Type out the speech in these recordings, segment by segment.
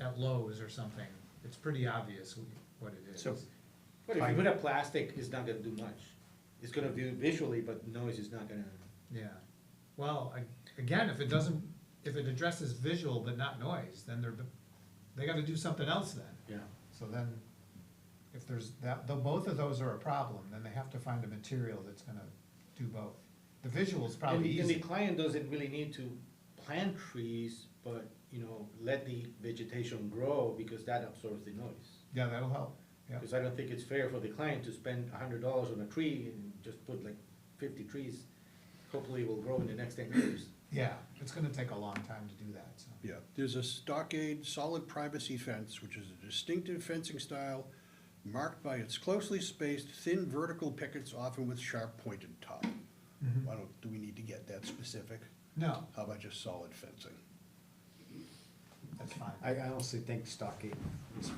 at Lowe's or something, it's pretty obvious wh- what it is. So, but if you Fine. put a plastic, it's not gonna do much. It's gonna do visually, but noise is not gonna, Yeah, well, I, again, if it doesn't, if it addresses visual but not noise, then they're, they gotta do something else then. yeah. So then, if there's that, though both of those are a problem, then they have to find a material that's gonna do both. The visual's And probably the, and the easy, client doesn't really need to plant trees, but, you know, let the vegetation grow because that absorbs the noise. yeah, that'll help, yeah, Because I don't think it's fair for the client to spend a hundred dollars on a tree and just put like fifty trees. Hopefully it will grow in the next ten years. yeah, it's gonna take a long time to do that, so. Yeah, there's a stockade solid privacy fence, which is a distinctive fencing style marked by its closely spaced, thin vertical pickets, often with sharp pointed top. Mm-hmm. Why don't, do we need to get that specific? No, How about just solid fencing? that's fine. I I honestly think stockade is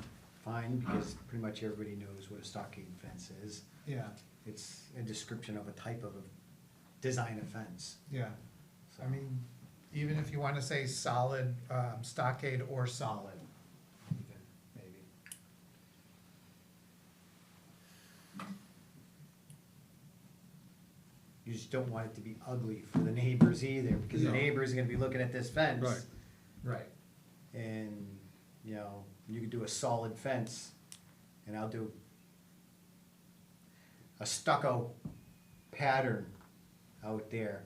fine, because pretty much everybody knows what a stockade fence is. Yeah, It's a description of a type of a design of fence. yeah, so. I mean, even if you wanna say solid, um, stockade or solid, even, maybe. You just don't want it to be ugly for the neighbors either, because the No. neighbor's are gonna be looking at this fence. Right. Right, And, you know, you could do a solid fence, and I'll do a stucco pattern out there,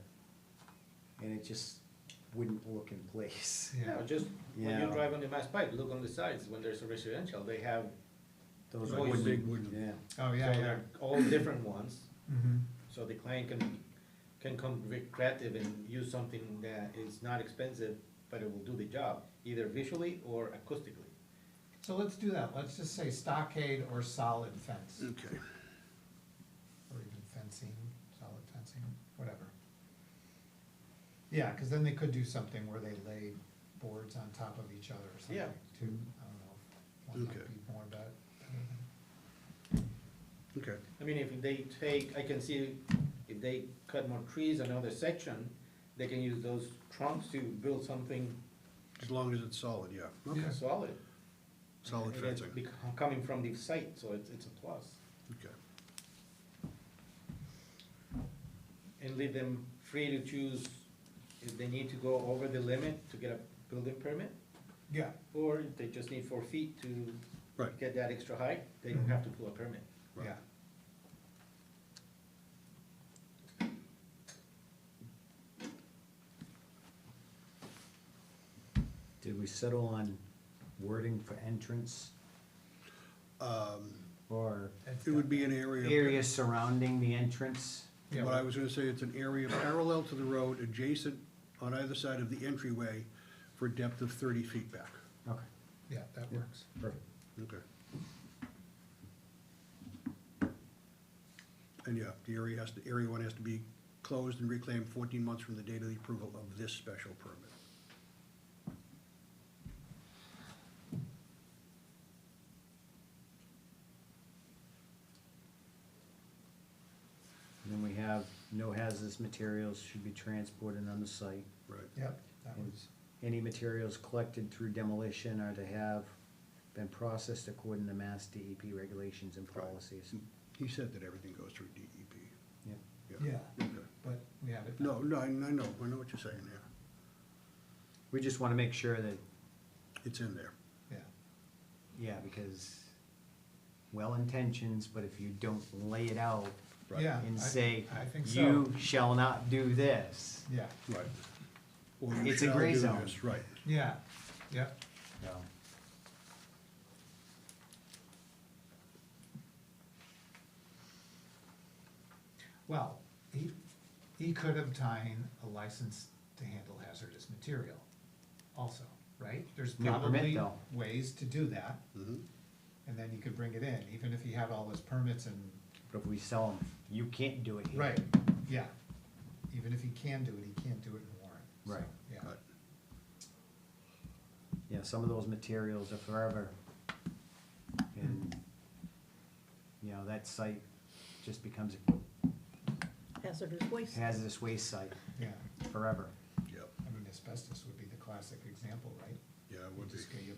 and it just wouldn't look in place. yeah, No, just when you Yeah. drive on the Mass Pike, look on the sides, when there's a residential, they have, Those Noise. wooden- Big wooden. Yeah, oh, so yeah, yeah. they're all different ones. Mm-hmm. So the client can, can come very creative and use something that is not expensive, but it will do the job, either visually or acoustically. So let's do that, let's just say stockade or solid fence, Okay, or even fencing, solid fencing, whatever. Yeah, cause then they could do something where they lay boards on top of each other or something Yeah. too, I don't know. One might Okay. be more about, okay. I mean, if they take, I can see if they cut more trees another section, they can use those trunks to build something As long as it's solid, yeah. Okay, Yeah. solid. solid And it's fencing, bec- Coming from the site, so it's, it's a plus. okay. And leave them free to choose if they need to go over the limit to get a building permit, yeah, or if they just need four feet to Right. get that extra height, they don't have to pull a permit. Right. yeah. did we settle on wording for entrance, Um, or that's It would be definitely- an area. area surrounding the entrance? Yeah, What I well, was gonna say, it's an area parallel to the road, adjacent on either side of the entryway for a depth of thirty feet back. Okay, yeah, that works. perfect. Okay. And yeah, the area has to, area one has to be closed and reclaimed fourteen months from the date of the approval of this special permit. And then we have, no hazardous materials should be transported on the site. Right. Yep, that And was, Any materials collected through demolition are to have been processed according to mass DEP regulations and Right. policies. He said that everything goes through DEP. Yep. yeah, Okay. but we have it. No, no, I I know, I know what you're saying there. We just wanna make sure that, It's in there. Yeah, yeah, because well intentions, but if you don't lay it out Right. yeah. I- and say, I think so. you shall not do this, Yeah, Right. Or you It's a shall gray do zone. this, Right. yeah, yeah, so. well, he, he could obtain a license to handle hazardous material also, right? There's No permit, probably though. Mm-hmm. ways to do that, Mhm. and then he could bring it in, even if he had all his permits and, But if we sell them, you can't do it here. right, yeah. Even if he can do it, he can't do it in Warren. so, Right. Yeah, Right. Yeah, some of those materials are forever. And, you know, that site just becomes a hazardous waste. hazardous waste site yeah, forever. Yep, I mean asbestos would be the classic example, right? yeah, it You would be. just get- you